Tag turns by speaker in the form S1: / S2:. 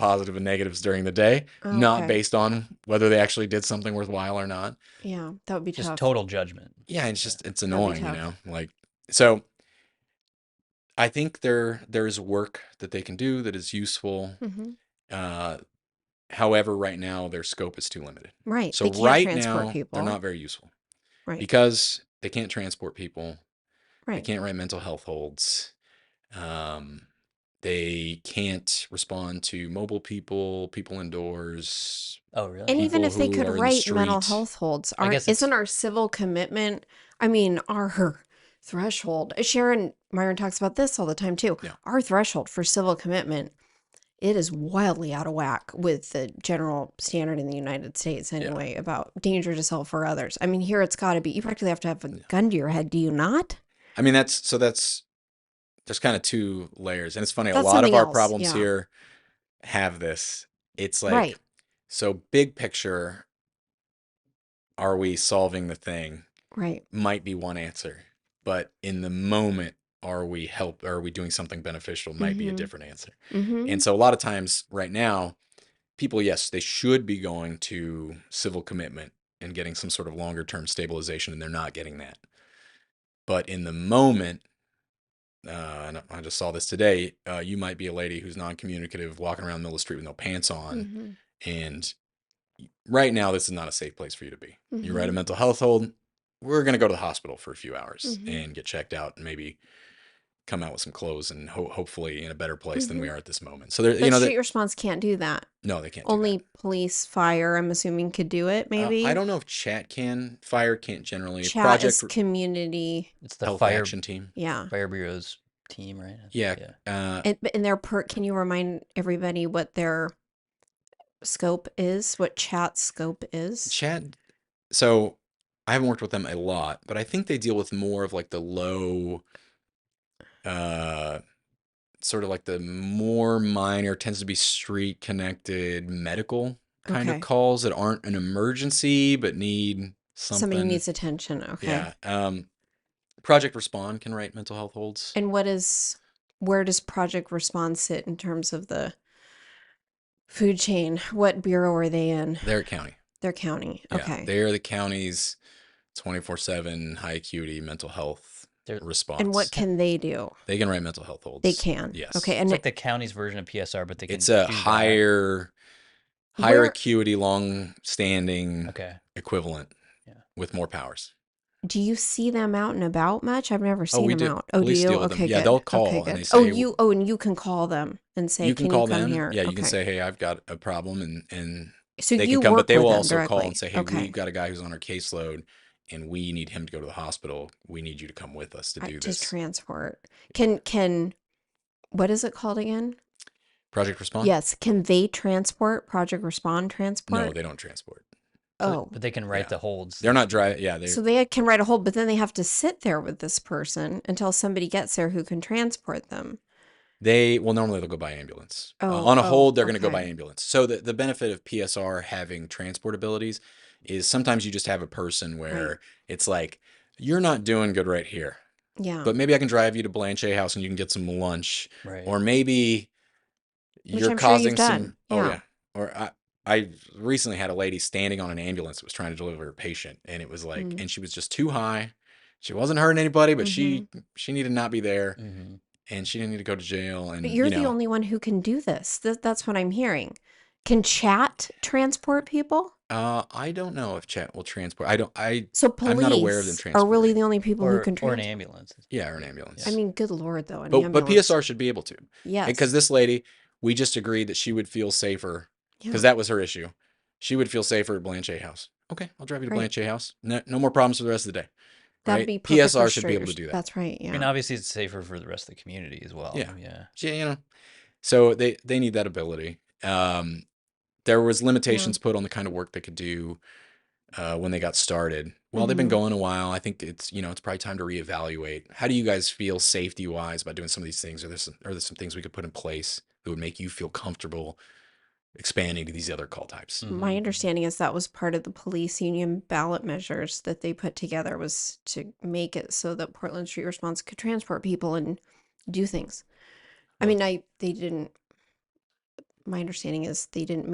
S1: positive and negatives during the day, not
S2: Oh, Okay.
S1: based on whether they actually did something worthwhile or not.
S2: Yeah, that would be
S3: Just
S2: tough.
S3: total judgment.
S1: Yeah, it's just it's
S2: be
S1: annoying, you know.
S2: tough.
S1: Like so I think there there's work that they can do that is useful.
S2: Mhm.
S1: Uh however, right now their scope is too limited.
S2: Right.
S1: So
S2: they can't
S1: right
S2: transport
S1: now
S2: people.
S1: they're not very useful
S2: right.
S1: because they can't transport people. They
S2: right.
S1: can't write mental health holds. Um, they can't respond to mobile people, people indoors.
S3: Oh, really?
S2: and even
S1: people
S2: if they
S1: who
S2: could
S1: are in the
S2: write mental
S1: street.
S2: health holds,
S3: I
S2: aren't-
S3: guess it's-
S2: isn't our civil commitment? I mean, our threshold. Sharon Myron talks about this all the time too.
S1: Yeah.
S2: Our threshold for civil commitment, it is wildly out of whack with the general standard in the United States anyway about danger to self or others. I mean, here it's got to be. You practically have to have a
S1: Yeah.
S2: gun to your head, do you not?
S1: I mean, that's so that's there's kind of two layers, and it's funny.
S2: That's
S1: a lot of
S2: something
S1: our
S2: else,
S1: problems
S2: yeah.
S1: here have this. It's like
S2: Right.
S1: so big picture. Are we solving the thing?
S2: Right.
S1: Might be one answer, but in the moment, are we help? Are we doing something beneficial? Might be a
S2: Mhm.
S1: different answer.
S2: Mm-hmm.
S1: And so a lot of times right now, people, yes, they should be going to civil commitment and getting some sort of longer term stabilization, and they're not getting that. But in the moment, uh, and I just saw this today. Uh, you might be a lady who's non-communicative, walking around the middle of the street with no pants on,
S2: hmm
S1: and right now this is not a safe place for you to be. You write
S2: Mhm.
S1: a mental health hold. We're gonna go to the hospital for a few hours
S2: Mhm.
S1: and get checked out, and maybe come out with some clothes and ho- hopefully in a better place than we are at this moment. So there,
S2: Mm-hmm. But
S1: you know,
S2: street
S1: that,
S2: response can't do that.
S1: no, they can't. do that.
S2: Only police, fire. I'm assuming could do it.
S1: Uh,
S2: Maybe
S1: I don't know if chat can, fire can't generally.
S2: Chat is
S1: Project
S2: community.
S3: It's the
S1: health
S3: fire
S1: action team.
S2: Yeah.
S3: fire bureau's team, right?
S1: Yeah. Uh,
S2: And, but- and their per, can you remind everybody what their scope is? What chat scope is?
S1: chat. So I haven't worked with them a lot, but I think they deal with more of like the low, uh, sort of like the more minor tends to be street connected medical kind
S2: Okay.
S1: of calls that aren't an emergency but need something.
S2: Somebody needs attention. Okay.
S1: Yeah. Um, Project Respond can write mental health holds.
S2: And what is where does Project Respond sit in terms of the food chain? What bureau are they in?
S1: They're a county.
S2: Their county.
S1: Yeah,
S2: okay.
S1: They are the county's 24 7 high acuity mental health
S3: They're- and
S1: response.
S2: and what can they do?
S1: they can write mental health holds?
S2: They can.
S1: Yes.
S2: Okay.
S3: It's
S2: And
S3: like the county's version of PSR, but they can
S1: It's a
S3: choose that.
S1: higher, higher
S2: Where-
S1: acuity, long standing
S3: Okay.
S1: equivalent
S3: Yeah.
S1: with more powers.
S2: do you see them out and about much? I've never seen
S1: we
S2: them
S1: do.
S2: out. Oh,
S1: Police
S2: do you?
S1: deal with them.
S2: okay.
S1: Yeah,
S2: good.
S1: they'll call
S2: okay,
S1: and
S2: good.
S1: they
S2: oh,
S1: say-
S2: you. Oh, and you can call them and say,
S1: you can, call
S2: you come
S1: them.
S2: here?"
S1: Yeah, you can
S2: Okay.
S1: say, "Hey, I've got a problem," and and
S2: So
S1: they
S2: you
S1: can come,
S2: work
S1: but they
S2: with
S1: will
S2: them
S1: also call
S2: directly.
S1: and say, "Hey,
S2: okay.
S1: we've got a guy who's on our caseload, and we need him to go to the hospital. We need you to come with us to
S2: I-
S1: do
S2: to
S1: this."
S2: transport. Can can what is it called again?
S1: Project Respond.
S2: Yes, can they transport? Project Respond transport.
S1: No, they don't transport.
S3: So-
S2: oh,
S3: But they can write
S1: Yeah.
S3: the holds.
S1: They're not driving. Yeah, they.
S2: so they can write a whole, but then they have to sit there with this person until somebody gets there who can transport them.
S1: They well normally they'll go by ambulance. Uh,
S2: Oh,
S1: on a
S2: oh,
S1: hold, they're going to go by
S2: okay.
S1: ambulance. So the the benefit of PSR having transport abilities is sometimes you just have a person where it's like you're not doing good right here,
S2: Yeah,
S1: but maybe I can drive you to Blanche House and you can get some lunch,
S3: Right.
S1: or maybe
S2: Which
S1: you're
S2: I'm sure you've
S1: causing some.
S2: done.
S1: Oh
S2: Yeah.
S1: yeah. Or I I recently had a lady standing on an ambulance that was trying to deliver a patient, and it was like,
S2: Mm.
S1: and she was just too high. She wasn't hurting anybody, but
S2: Mm-hmm.
S1: she she needed to not be there,
S3: hmm
S1: and she didn't need to go to jail. And
S2: but you're
S1: you know,
S2: the only one who can do this. Th- that's what I'm hearing. Can chat transport people?
S1: Uh, I don't know if chat will transport. I don't. I
S2: So police
S1: I'm not aware of them
S2: are really
S1: transporting.
S2: the only people
S3: Or,
S2: who can
S3: or an
S2: transport.
S3: ambulance.
S1: yeah, or an ambulance.
S2: I mean, good lord, though. An
S1: but but
S2: ambulance.
S1: PSR should be able to
S2: yes,
S1: because this lady, we just agreed that she would feel safer
S2: Yeah.
S1: because that was her issue. She would feel safer at Blanche House. Okay, I'll drive you to
S2: Right.
S1: Blanche House. No, no more problems for the rest of the day.
S2: That'd
S1: right?
S2: be perfect
S1: PSR
S2: for
S1: should be able to
S2: strangers.
S1: do that.
S2: That's right.
S3: I mean,
S2: Yeah.
S3: obviously, it's safer for the rest of the community as well.
S1: Yeah.
S3: Yeah.
S1: Yeah, you know. So they they need that ability. Um, there was limitations put on the kind of work they could do uh, when they got started. Well, they've been
S2: Mhm.
S1: going a while. I think it's you know it's probably time to reevaluate. How do you guys feel safety wise about doing some of these things? Are there some, are there some things we could put in place that would make you feel comfortable expanding to these other call types?
S3: Mm.
S2: My
S3: Mhm.
S2: understanding is that was part of the police union ballot measures that they put together was to make it so that Portland Street Response could transport people and do things. I
S1: Well-
S2: mean, I they didn't my understanding is they didn't